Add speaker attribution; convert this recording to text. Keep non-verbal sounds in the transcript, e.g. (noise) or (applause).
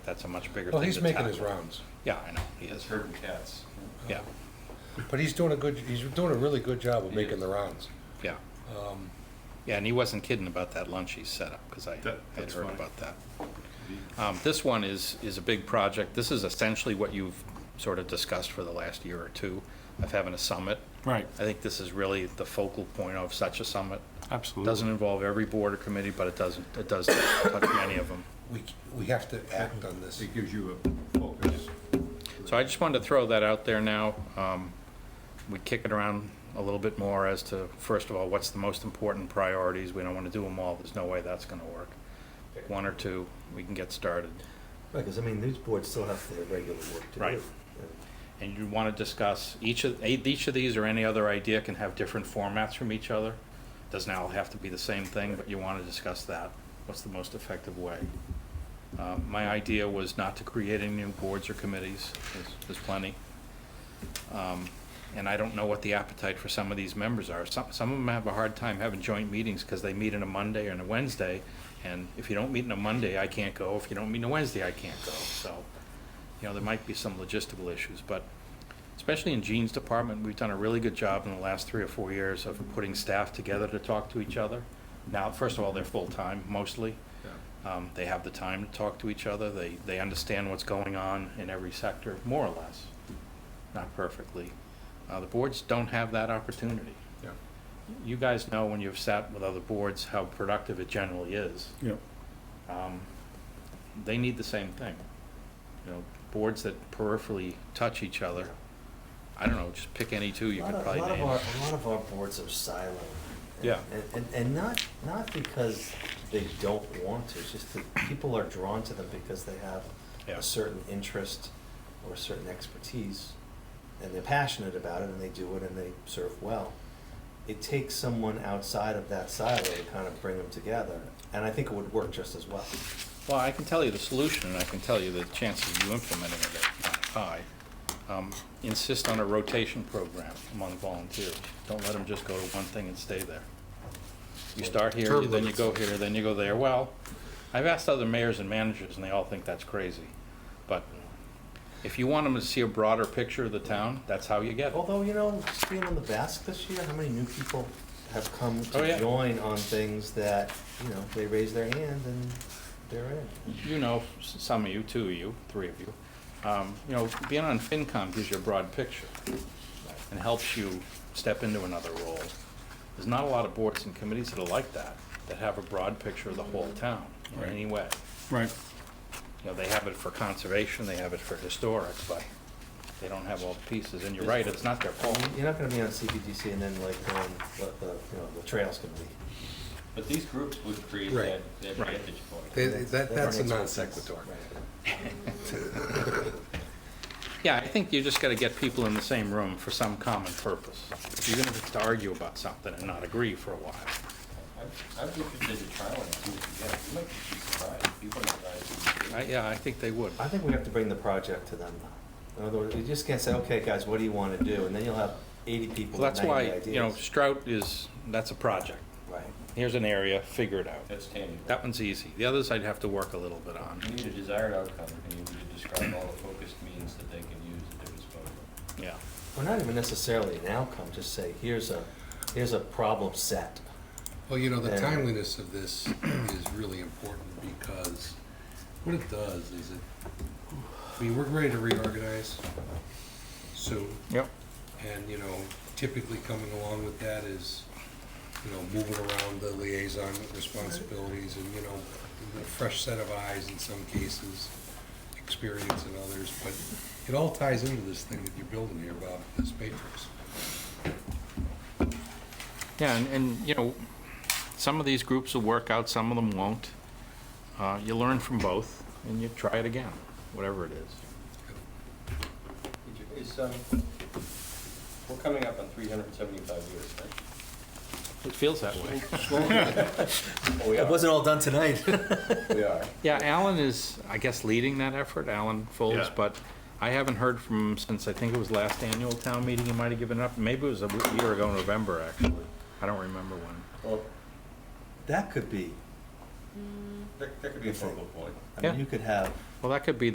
Speaker 1: That's a much bigger thing.
Speaker 2: Well, he's
Speaker 1: to
Speaker 2: making his
Speaker 1: tackle.
Speaker 2: rounds,
Speaker 1: Yeah, I know, he
Speaker 3: It's
Speaker 1: is,
Speaker 3: herding cats.
Speaker 1: yeah,
Speaker 2: but he's doing a good, he's doing a really good job of
Speaker 3: He
Speaker 2: making
Speaker 3: is.
Speaker 2: the rounds.
Speaker 1: yeah.
Speaker 2: Um,
Speaker 1: Yeah, and he wasn't kidding about that lunch he set up, because I
Speaker 3: That-
Speaker 1: had
Speaker 3: that's
Speaker 1: heard
Speaker 3: funny.
Speaker 1: about that. Um, This one is, is a big project. This is essentially what you've sort of discussed for the last year or two of having a summit.
Speaker 4: Right,
Speaker 1: I think this is really the focal point of such a summit. It
Speaker 4: absolutely.
Speaker 1: Doesn't involve every board or committee, but it doesn't, it does touch many of them.
Speaker 2: we, we have to act on this.
Speaker 3: It gives you a focus.
Speaker 1: So I just wanted to throw that out there now. Um, We kick it around a little bit more as to, first of all, what's the most important priorities? We don't want to do them all. There's no way that's going to work. Pick One or two, we can get started.
Speaker 5: Right, because I mean, these boards still have their regular work to
Speaker 1: Right.
Speaker 5: do.
Speaker 1: And you want to discuss, each of, eh, each of these or any other idea can have different formats from each other. Doesn't all have to be the same thing, but you want to discuss that. What's the most effective way? Uh, My idea was not to create any new boards or committees. There's- There's plenty. Um, And I don't know what the appetite for some of these members are. Some, some of them have a hard time having joint meetings because they meet on a Monday and a Wednesday. And if you don't meet on a Monday, I can't go. If you don't meet on a Wednesday, I can't go. So, you know, there might be some logistical issues, but especially in Gene's department, we've done a really good job in the last three or four years of putting staff together to talk to each other. Now, first of all, they're full-time mostly. Um, They have the time to talk to each other. They, they understand what's going on in every sector, more or less, not perfectly. Uh, The boards don't have that opportunity.
Speaker 3: Yeah.
Speaker 1: You guys know when you've sat with other boards how productive it generally is.
Speaker 4: Yeah.
Speaker 1: Um, They need the same thing. You know, boards that peripherally touch each other. I don't know, just pick any two you
Speaker 5: A lot
Speaker 1: could
Speaker 5: of-
Speaker 1: probably
Speaker 5: A lot of
Speaker 1: name.
Speaker 5: our, a lot of our boards are silent. and-
Speaker 1: Yeah.
Speaker 5: And, and, and not, not because they don't want to, it's just that people are drawn to them because they have
Speaker 1: Yeah.
Speaker 5: a certain interest or a certain expertise, and they're passionate about it, and they do it, and they serve well. It takes someone outside of that silo to kind of bring them together, and I think it would work just as well.
Speaker 1: Well, I can tell you the solution, and I can tell you the chances of you implementing it are not high. Um, Insist on a rotation program among volunteers. Don't let them just go to one thing and stay there. You start here,
Speaker 2: Term
Speaker 1: then you
Speaker 2: limits.
Speaker 1: go here, then you go there. Well, I've asked other mayors and managers, and they all think that's crazy. But if you want them to see a broader picture of the town, that's how you get it.
Speaker 5: Although, you know, just being on the Basque this year, how many new people have come to
Speaker 1: Oh, yeah.
Speaker 5: join on things that, you know, they raise their hand and they're in.
Speaker 1: you know, s- some of you, two of you, three of you, um, you know, being on FinCom gives you a broad picture and helps you step into another role. There's not a lot of boards and committees that are like that, that have a broad picture of the whole town in
Speaker 4: Right.
Speaker 1: any way.
Speaker 4: Right,
Speaker 1: You know, they have it for conservation, they have it for historic, but they don't have all the pieces, and you're right, it's not their fault. (laughs)
Speaker 5: You're not gonna be on CPDC and then like, going what the, you know, the trail's gonna be.
Speaker 6: But these groups would create
Speaker 2: Right.
Speaker 6: that, that
Speaker 1: Right.
Speaker 6: vantage point.
Speaker 2: They- That, that's a
Speaker 5: Right.
Speaker 2: non sequitur.
Speaker 1: Yeah, I think you just gotta get people in the same room for some common purpose, even if it's to argue about something and not agree for a while.
Speaker 6: I was interested in trying and see what you get. You might be surprised. People might surprised.
Speaker 1: I, yeah, I think they would.
Speaker 5: I think we have to bring the project to them though. In other words, you just can't say, okay, guys, what do you wanna do? And then you'll have eighty people
Speaker 1: Well,
Speaker 5: with
Speaker 1: that's
Speaker 5: ninety
Speaker 1: why,
Speaker 5: ideas.
Speaker 1: you know, Strout is, that's a project.
Speaker 5: Right.
Speaker 1: Here's an area, figure it out.
Speaker 6: That's tangible.
Speaker 1: That one's easy. The others I'd have to work a little bit on,
Speaker 6: You need a desired outcome, and you need to describe all the focused means that they can use at their disposal.
Speaker 1: yeah.
Speaker 5: Well, not even necessarily an outcome, just say, here's a, here's a problem set.
Speaker 2: Well, you know, the
Speaker 5: Yeah.
Speaker 2: timeliness of this is really important because what it does is it, I mean, we're ready to reorganize soon.
Speaker 1: Yep.
Speaker 2: And, you know, typically coming along with that is, you know, moving around the liaison responsibilities and, you know, a fresh set of eyes in some cases, experience in others, but it all ties into this thing that you're building here, Bob, this matrix.
Speaker 1: Yeah, and, and, you know, some of these groups will work out, some of them won't. Uh, you learn from both, and you try it again, whatever it is.
Speaker 6: Is, um, we're coming up on three hundred and seventy-five years, right?
Speaker 1: It feels that way.
Speaker 6: Oh, we
Speaker 5: It
Speaker 6: are,
Speaker 5: wasn't all done tonight.
Speaker 6: we are.
Speaker 1: Yeah, Alan is, I guess, leading that effort, Alan Folds,
Speaker 3: Yeah.
Speaker 1: but I haven't heard from him since, I think it was last annual town meeting, he might have given up. Maybe it was a w- year ago, in November, actually. I don't remember when.
Speaker 6: Well,
Speaker 5: That could be
Speaker 7: that, that could be a
Speaker 6: Good thing.
Speaker 7: focal point.
Speaker 6: I
Speaker 5: Yeah.
Speaker 6: mean, you could have
Speaker 5: Well, that could be